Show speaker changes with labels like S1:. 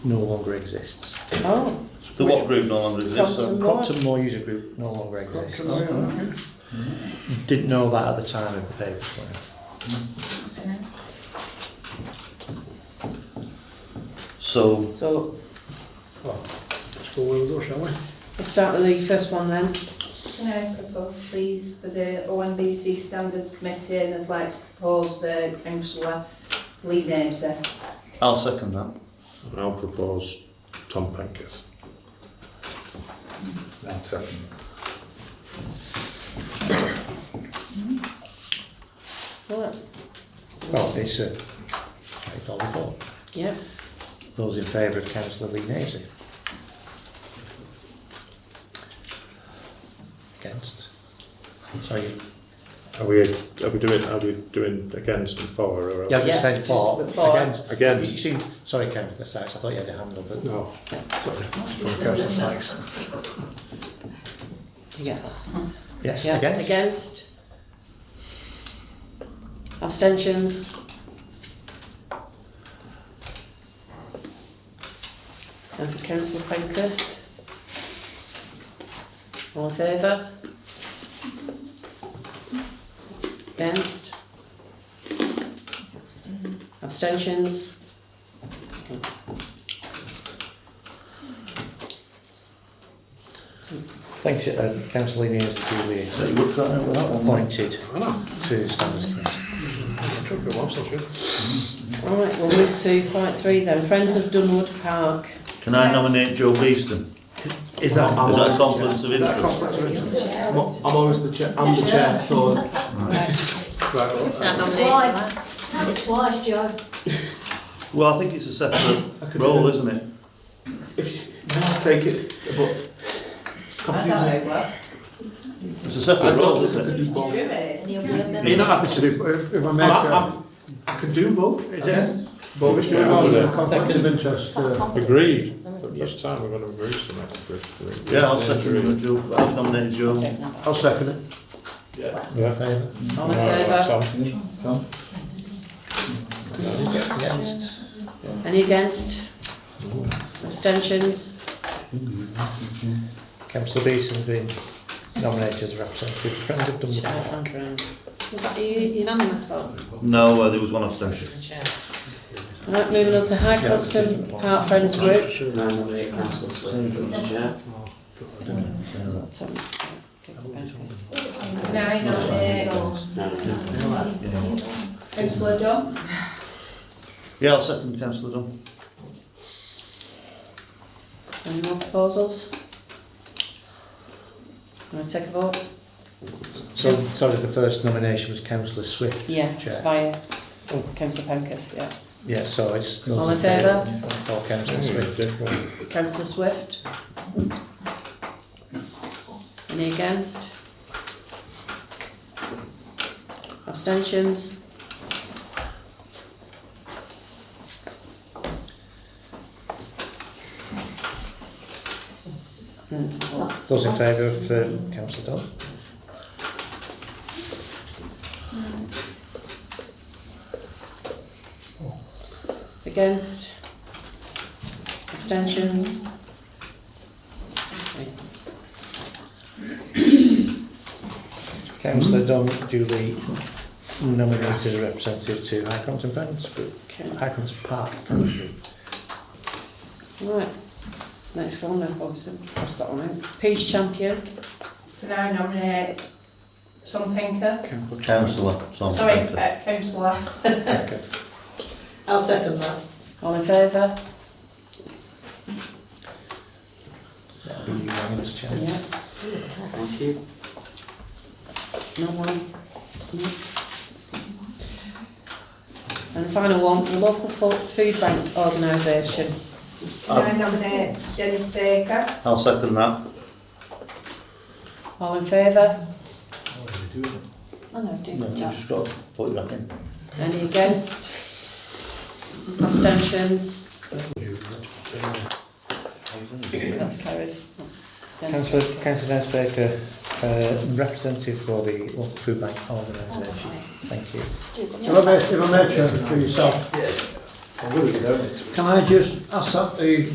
S1: no longer exists.
S2: Oh,
S3: The what group no longer exists?
S2: Crompton
S3: so-
S2: Law.
S1: Crompton Law User Group no longer exists.
S4: Oh, yeah, okay.
S1: Didn't know that at the time of the paper.
S3: So,
S2: so
S4: Well, let's go where we go, shall we?
S2: we'll start with the first one then.
S5: Can I propose, please, for the OMBC Standards Committee, and I'd like to propose the councillor Lee Namesay.
S3: I'll second that.
S4: I'll propose Tom Pankhurst.
S6: I'll second.
S2: Right.
S1: Well, it's a it's all before.
S2: Yep.
S1: Those in favour of Councillor Lee Nasey? Against? Sorry,
S4: Are we, are we doing, are we doing against and for, or?
S1: yeah, I
S2: Yeah,
S1: just said
S2: just
S1: for,
S2: before.
S1: against. You
S4: Against?
S1: seemed, sorry Councillor Sykes, I thought you had a hand up, but
S4: No.
S6: From Councillor Sykes.
S2: You get that.
S1: yes,
S2: Yeah.
S1: against.
S2: Against. Abstentions. And for councillor Pankhurst. All in favour? Against? Abstentions?
S1: Thanks, uh, Councillor Lee Nasey, to
S3: So
S1: the
S3: you would go with that one?
S1: appointed
S4: I know.
S1: to the Standards Committee.
S4: Took it once, I should.
S2: All right, we'll move to point three then. Friends of Dunwood Park.
S3: Can I nominate Joe Beeston?
S1: Is that,
S3: Is that a conflict of interest?
S6: I'm I'm always the chair, I'm the chair, so. Right, well,
S7: Twice, twice, Joe.
S3: Well, I think it's a
S6: I
S3: separate
S6: could
S3: role,
S6: do-
S3: isn't it?
S6: I'll take it, but it's
S5: I
S6: confusing.
S5: don't know what.
S3: It's a separate role, isn't it?
S5: Sure it is.
S7: And he'll be a member.
S6: You're not happy
S4: to do, if I
S6: I'm, I'm, I can do both, I guess. But if you're
S4: Yeah,
S6: not,
S4: I'll do that.
S6: conflict of interest,
S7: Got a
S6: uh,
S7: conflict.
S4: Agreed. For the first time, we're going to agree something for three.
S3: Yeah, I'll second it with Joe, I've nominated Joe.
S1: I'll second it.
S4: Yeah.
S1: Favour?
S2: All in
S4: Right,
S2: favour?
S4: Tom.
S6: Tom?
S1: Against?
S2: Any against? Abstentions?
S1: Councillor Beeson being nominated as representative for Friends of Dunwood
S2: Shout
S1: Park.
S2: hand round.
S8: Was that a u- unanimous vote?
S3: No, uh, there was one abstention.
S8: Chair.
S2: Right, moving on to High
S1: Yeah, it's a
S2: Crompton
S1: different one.
S2: Park Friends Group.
S9: Should have nominated Councillor Swain for the chair.
S2: So, councillor Pankhurst.
S5: Can I nominate councillor Dunn?
S3: Yeah, I'll second councillor Dunn.
S2: Any more proposals? Can I take a vote?
S1: So, sorry, the first nomination was Councillor Swift.
S2: Yeah,
S1: Chair. Oh.
S2: via councillor Pankhurst, yeah.
S1: Yeah, so it's those
S2: All in
S1: For Councillor Swift. uh,
S2: Councillor Swift? Any against? Abstentions? And what?
S1: Those in favour of um, Councillor Dunn.
S2: Against? Abstentions?
S1: Councillor Dunn duly nominated as representative to High Crompton Friends Group.
S2: Okay,
S1: High Crompton Park Friends Group.
S2: right. Next one then, obviously, pass that one out. Peace champion?
S5: Can I nominate Tom Pinker?
S3: Councillor Tom
S5: Sorry,
S3: Penter.
S5: uh, councillor.
S1: Okay.
S2: I'll second that. All in favour?
S1: That'll be unanimous, Chair.
S2: Yeah.
S9: Thank you.
S2: No one. No. And the final one, the local fo- food bank organisation.
S5: Can I nominate Dennis Baker?
S3: I'll second that.
S2: All in favour?
S7: I know, Oh, do
S3: No,
S7: good
S3: you
S7: job.
S3: just got to put it back in.
S2: Any against? Abstentions? That's carried.
S1: Councillor, Councillor Nance Baker, uh, representative for the Local Food Bank Organisation. Thank you.
S7: Do good
S6: If I
S7: job.
S6: may, if I may, Chair, for yourself,
S10: I'm going to be down it.
S6: Can I just ask that the